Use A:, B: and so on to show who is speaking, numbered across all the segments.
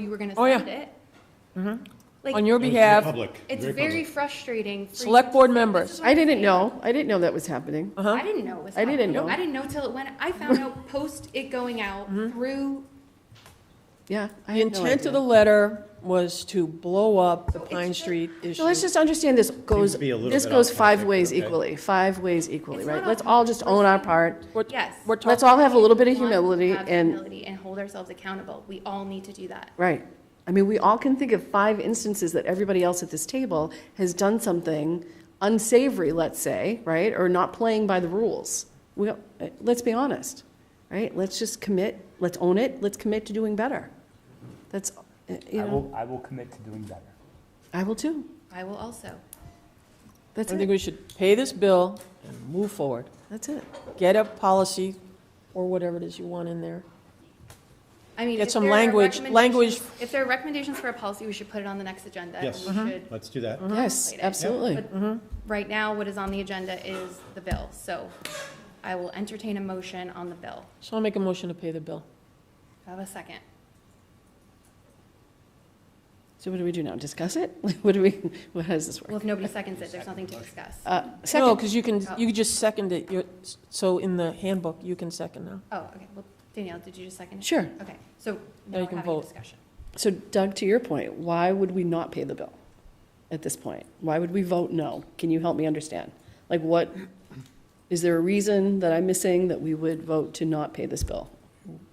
A: you were gonna
B: Oh, yeah. Mm-hmm.
A: send it.
B: On
A: Like,
B: your behalf,
C: Public.
A: it's
C: very
A: very
C: public.
A: frustrating. for you
B: select
A: to-
B: board
A: This
B: members. Uh-huh.
A: is what
D: I
A: I'm
D: didn't
A: saying.
D: know, I didn't know that was happening.
A: I didn't know it was
D: I didn't
A: happening.
D: know.
A: I didn't know till it went, I found out post it going out
B: Mm-hmm.
A: through,
D: Yeah. I
B: The
D: had no
B: intent of
D: idea.
B: the letter was to blow up the
A: it's
B: Pine
A: just-
B: Street issue.
D: So let's just understand this goes,
C: to be a little
D: this
C: bit
D: goes
C: off
D: five
C: topic,
D: ways
C: okay.
D: equally, five ways equally,
A: It's
D: right?
A: not
D: Let's
A: off
D: all just own our part.
B: We're-
A: yes.
B: We're
D: Let's
B: talking,
D: all have a little bit of
A: We want
D: humility
A: to have
D: and,
A: humility and hold ourselves accountable. We all need to do that.
D: right. I mean, we all can think of five instances that everybody else at this table has done something unsavory, let's say, right? Or not playing by the rules. We, uh, let's be honest, right? Let's just commit, let's own it, let's commit to doing better. That's, uh, you
E: I
D: know,
E: will, I will commit to doing better.
D: I will too.
A: I will also.
B: I
D: That's
B: think
D: it,
B: we should pay this bill and move forward.
D: that's it.
B: Get a policy or whatever it is you want in there.
A: I mean,
B: Get
A: if
B: some
A: there are
B: language- language-
A: recommendations- If there are recommendations for a policy, we should put it on the next agenda. and
C: Yes.
A: we
B: Mm-hmm.
A: should-
C: Let's do that.
D: Yes,
A: Contemplated.
D: absolutely.
A: But right now, what is on the agenda is the bill, so I will entertain a motion on the bill.
B: So I'll make a motion to pay the bill.
A: Have a second.
D: So what do we do now? Discuss it? What do we, what, how does this
A: Well,
D: work?
A: if nobody seconds it, there's nothing to discuss.
D: Uh,
B: No,
D: Second,
B: because you can, you could just second it. You're- So in the handbook, you can second now.
A: Oh, okay, well, Danielle, did you just second it?
D: sure.
A: Okay, so
B: Now
A: now
B: you
A: we're
B: can
A: having a
B: vote.
A: discussion.
D: So Doug, to your point, why would we not pay the bill at this point? Why would we vote no? Can you help me understand? Like what, is there a reason that I'm missing that we would vote to not pay this bill?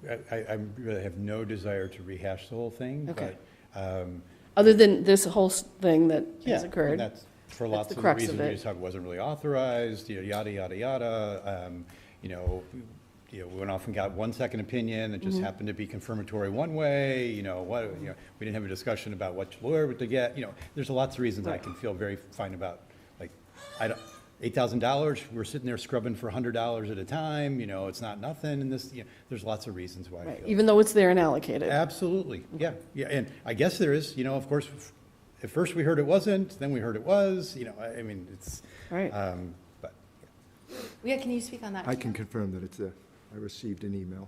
C: I, I- I really have no desire to rehash the whole thing,
D: Okay.
C: but, um,
D: Other than this whole s- thing that
C: yeah.
D: has occurred?
C: That's for
D: That's
C: lots
D: the
C: of the
D: crux of
C: reasons we
D: it.
C: just talked, wasn't really authorized, you know, yada, yada, yada. Um, You know, you know, we went off and got one second opinion, it
D: Mm-hmm.
C: just happened to be confirmatory one way, you know, what, you know, we didn't have a discussion about which lawyer to get, you know, there's lots of reasons I can feel very fine about, like, I don't, eight thousand dollars, we're sitting there scrubbing for a hundred dollars at a time, you know, it's not nothing, and this, you know, there's lots of reasons why I
D: Right,
C: feel.
D: Even though it's there and allocated?
C: Absolutely, yeah, yeah, and I guess there is, you know, of course, f- at first we heard it wasn't, then we heard it was, you know, I, I mean, it's,
D: Right.
C: um, but,
A: Yeah, can you speak on that?
F: I can confirm that it's there. I received an email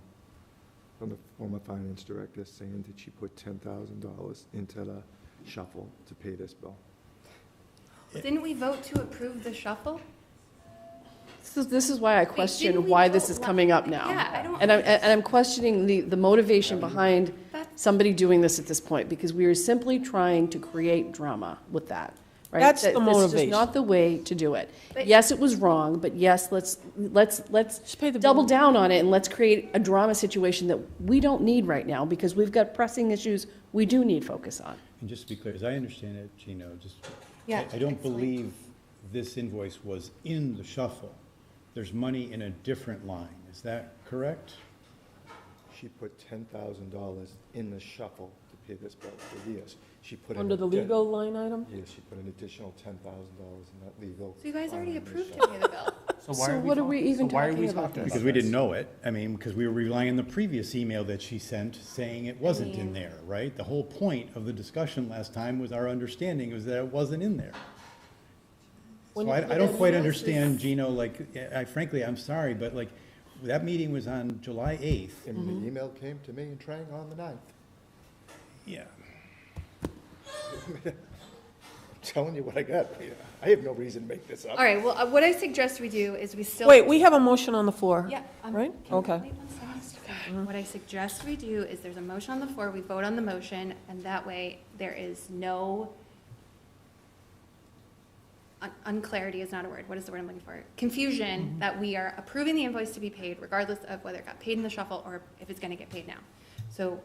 F: from the former finance director saying that she put ten thousand dollars into the shuffle to pay this bill.
A: Didn't we vote to approve the shuffle?
D: This is, this is why I
A: didn't
D: question
A: we
D: why this
A: vote
D: is
A: la-
D: coming up now.
A: Yeah, I don't-
D: And I'm, and I'm questioning the, the motivation behind
A: That's-
D: somebody doing this at this point, because we are simply trying to create drama with that, right?
B: That's the
D: That This
B: motivation.
D: is not the way to do it.
A: But-
D: Yes, it was wrong, but yes, let's, let's, let's
B: Just pay the bill.
D: double down on it and let's create a drama situation that we don't need right now, because we've got pressing issues we do need focus on.
C: and just to be clear, as I understand it, Gino, just,
A: Yeah,
C: I- I don't
A: excellent.
C: believe this invoice was in the shuffle. There's money in a different line, is that correct?
F: She put ten thousand dollars in the shuffle to pay this bill for years. She put in.
B: Under the
F: addi-
B: legal line item?
F: Yes, she put an additional ten thousand dollars in that legal.
A: So you guys already
F: line in the
A: approved to
F: shuffle.
A: pay the bill.
E: why
D: So what are
E: talk-
D: we even
E: so why are
D: talking
E: we
D: about
E: talking
D: this?
C: Because we
E: this?
C: didn't know it, I mean, because we were relying on the previous email that she sent saying it wasn't in there, right? The whole point of the discussion last time was our understanding was that it wasn't in there.
B: When
C: So
B: you
C: I,
B: put
C: I
B: that
C: don't
B: in
C: quite
B: there,
C: understand, Gino, like, I frankly, I'm sorry, but like, that meeting was on July eighth.
F: And
B: Mm-hmm.
F: the email came to me and Trang on the ninth.
C: Yeah.
F: I'm telling you what I got, Peter. I have no reason to make this up.
A: All right, well, uh, what I suggest we do is we still.
B: Wait, we have a motion on the floor.
A: Yeah. um,
B: Right?
A: can you
B: Okay.
A: wait one second, Mr. Chairman? What I suggest we do is there's a motion on the floor, we vote on the motion, and that way there is no, un- unclarity is not a word, what is the word I'm looking for? Confusion
B: Mm-hmm.
A: that we are approving the invoice to be paid regardless of whether it got paid in the shuffle or if it's going to get paid now. So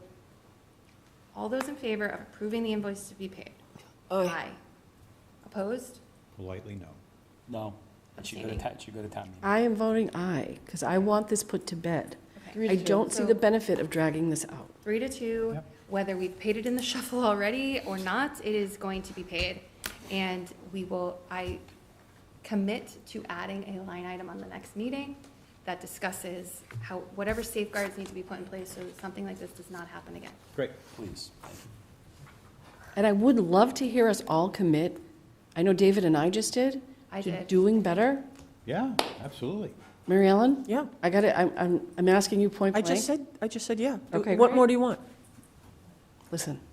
A: all those in favor of approving the invoice to be paid?
B: Aye.
A: Opposed?
C: Politely, no.
E: No, it should go to,
A: Abstaining.
E: ta- it should go to town meeting.
D: I am voting aye, because I want this put to bed.
A: Okay.
D: I don't see
A: So-
D: the benefit of dragging this out.
A: three to two,
C: Yep.
A: whether we've paid it in the shuffle already or not, it is going to be paid. And we will, I commit to adding a line item on the next meeting that discusses how, whatever safeguards need to be put in place so that something like this does not happen again.
C: Great.
E: Please.
D: And I would love to hear us all commit, I know David and I just did.
A: I
D: to
A: did.
D: Doing better.
C: Yeah, absolutely.
D: Mary Ellen?
B: Yeah.
D: I got it, I'm, I'm, I'm asking you point
B: I
D: blank.
B: just said, I just said, yeah. Do-
D: Okay,
B: What
D: great.
B: more do you want?
D: listen,